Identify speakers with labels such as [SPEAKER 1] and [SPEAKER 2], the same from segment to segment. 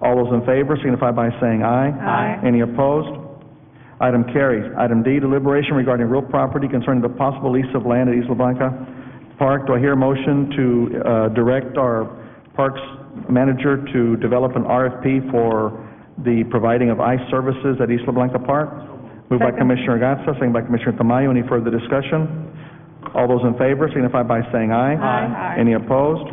[SPEAKER 1] All those in favor signify by saying aye.
[SPEAKER 2] Aye.
[SPEAKER 1] Any opposed? Item carries. Item D, deliberation regarding real property concerning the possible lease of land at Isla Blanca Park. Do I hear a motion to uh, direct our Parks manager to develop an RFP for the providing of ice services at Isla Blanca Park? Moved by Commissioner Gatsa, second by Commissioner Tamayo. Any further discussion? All those in favor signify by saying aye.
[SPEAKER 2] Aye. Aye.
[SPEAKER 1] Any opposed?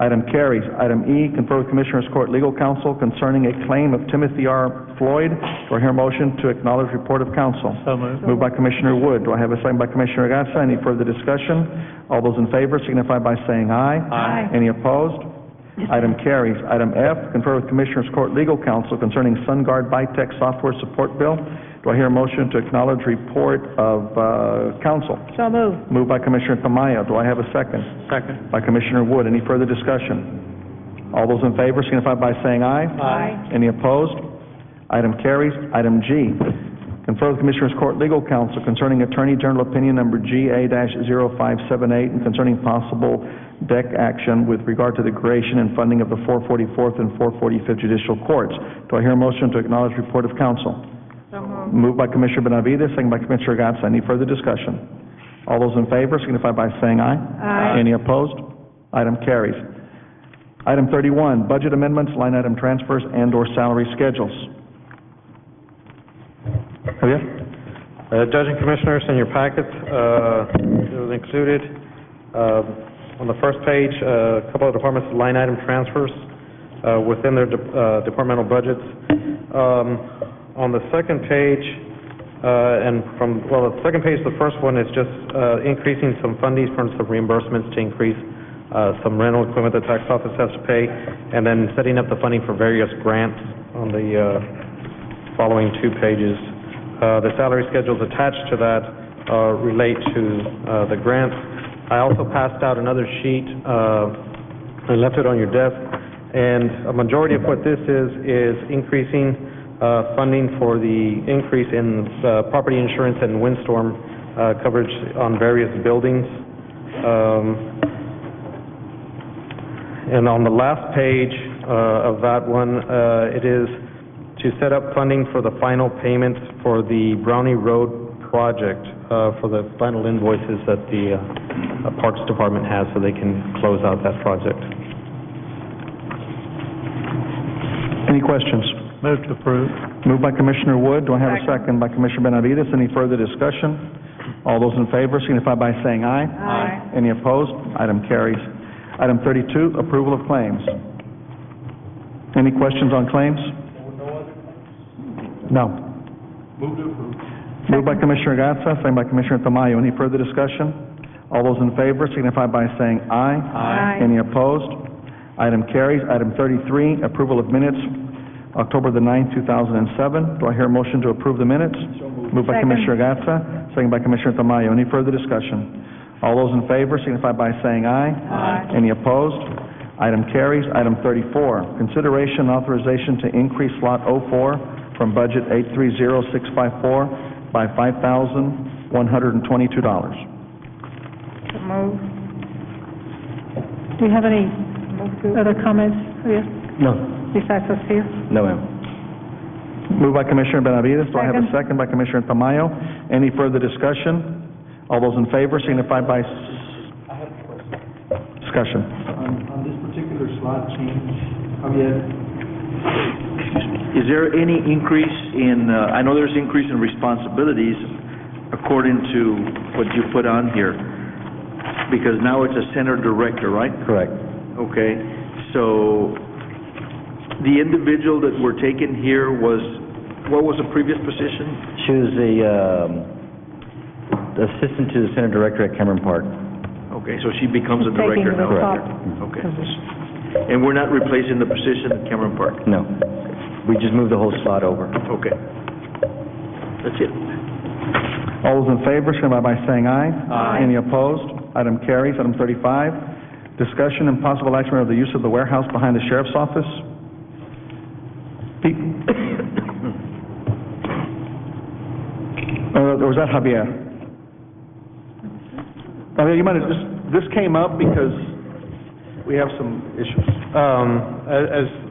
[SPEAKER 1] Item carries. Item E, confer with Commissioners Court Legal Counsel concerning a claim of Timothy R. Floyd. Do I hear a motion to acknowledge report of counsel?
[SPEAKER 3] So moved.
[SPEAKER 1] Moved by Commissioner Wood. Do I have a second by Commissioner Gatsa? Any further discussion? All those in favor signify by saying aye.
[SPEAKER 2] Aye.
[SPEAKER 1] Any opposed? Item carries. Item F, confer with Commissioners Court Legal Counsel concerning SunGuard Bitech Software Support Bill. Do I hear a motion to acknowledge report of uh, counsel?
[SPEAKER 2] So moved.
[SPEAKER 1] Moved by Commissioner Tamayo. Do I have a second?
[SPEAKER 3] Second.
[SPEAKER 1] by Commissioner Wood. Any further discussion? All those in favor signify by saying aye.
[SPEAKER 2] Aye.
[SPEAKER 1] Any opposed? Item carries. Item G, confer with Commissioners Court Legal Counsel concerning Attorney General Opinion Number GA-0578 and concerning possible deck action with regard to the creation and funding of the 444th and 445th Judicial Courts. Do I hear a motion to acknowledge report of counsel? Moved by Commissioner Benavides, second by Commissioner Gatsa. Any further discussion? All those in favor signify by saying aye.
[SPEAKER 2] Aye.
[SPEAKER 1] Any opposed? Item carries. Item thirty-one, budget amendments, line item transfers, and/or salary schedules. Javier?
[SPEAKER 4] Uh, Judge and Commissioners, in your packet, uh, it was included, uh, on the first page, uh, a couple of departments' line item transfers uh, within their de- uh, departmental budgets. Um, On the second page, uh, and from, well, the second page, the first one is just uh, increasing some fundings from some reimbursements to increase uh, some rental equipment the tax office has to pay, and then setting up the funding for various grants on the uh, following two pages. Uh, The salary schedules attached to that uh, relate to uh, the grants. I also passed out another sheet, uh, I left it on your desk, and a majority of what this is, is increasing uh, funding for the increase in uh, property insurance and windstorm uh, coverage on various buildings. Um, and on the last page uh, of that one, uh, it is to set up funding for the final payments for the Brownie Road project, uh, for the final invoices that the uh, Parks Department has so they can close out that project.
[SPEAKER 1] Any questions?
[SPEAKER 3] Move to approve.
[SPEAKER 1] Moved by Commissioner Wood. Do I have a second by Commissioner Benavides? Any further discussion? All those in favor signify by saying aye.
[SPEAKER 2] Aye.
[SPEAKER 1] Any opposed? Item carries. Item thirty-two, approval of claims. Any questions on claims? No. Moved by Commissioner Gatsa, second by Commissioner Tamayo. Any further discussion? All those in favor signify by saying aye.
[SPEAKER 2] Aye.
[SPEAKER 1] Any opposed? Item carries. Item thirty-three, approval of minutes, October the ninth, two thousand and seven. Do I hear a motion to approve the minutes? Moved by
[SPEAKER 2] Second.
[SPEAKER 1] Commissioner Gatsa, second by Commissioner Tamayo. Any further discussion? All those in favor signify by saying aye.
[SPEAKER 2] Aye.
[SPEAKER 1] Any opposed? Item carries. Item thirty-four, consideration and authorization to increase Lot 04 from budget eight-three-zero-six-five-four by five thousand, one hundred and twenty-two dollars.
[SPEAKER 2] So moved. Do you have any other comments, Javier,
[SPEAKER 1] No.
[SPEAKER 2] besides us here?
[SPEAKER 1] No, ma'am. Moved by Commissioner Benavides, do I have a second
[SPEAKER 2] Second.
[SPEAKER 1] by Commissioner Tamayo? Any further discussion? All those in favor signify by s-
[SPEAKER 5] I have a question.
[SPEAKER 1] discussion.
[SPEAKER 5] On, on this particular slot change, Javier, is there any increase in, uh, I know there's increase in responsibilities according to what you put on here, because now it's a center director, right?
[SPEAKER 4] Correct.
[SPEAKER 5] Okay, so the individual that we're taking here was, what was the previous position?
[SPEAKER 6] She was the um, assistant to the center director at Cameron Park.
[SPEAKER 5] Okay, so she becomes a
[SPEAKER 2] Taking
[SPEAKER 5] director
[SPEAKER 2] the
[SPEAKER 5] now?
[SPEAKER 2] top
[SPEAKER 5] Okay.
[SPEAKER 2] position.
[SPEAKER 5] And we're not replacing the position at Cameron Park?
[SPEAKER 6] No, we just moved the whole slot over.
[SPEAKER 5] Okay. That's it.
[SPEAKER 1] All those in favor signify by saying aye.
[SPEAKER 2] Aye.
[SPEAKER 1] Any opposed? Item carries. Item thirty-five, discussion and possible action of the use of the warehouse behind the sheriff's office. Pete? Uh, or was that Javier? Javier, you might have, this, this came up because we have some issues.
[SPEAKER 4] Um, a- As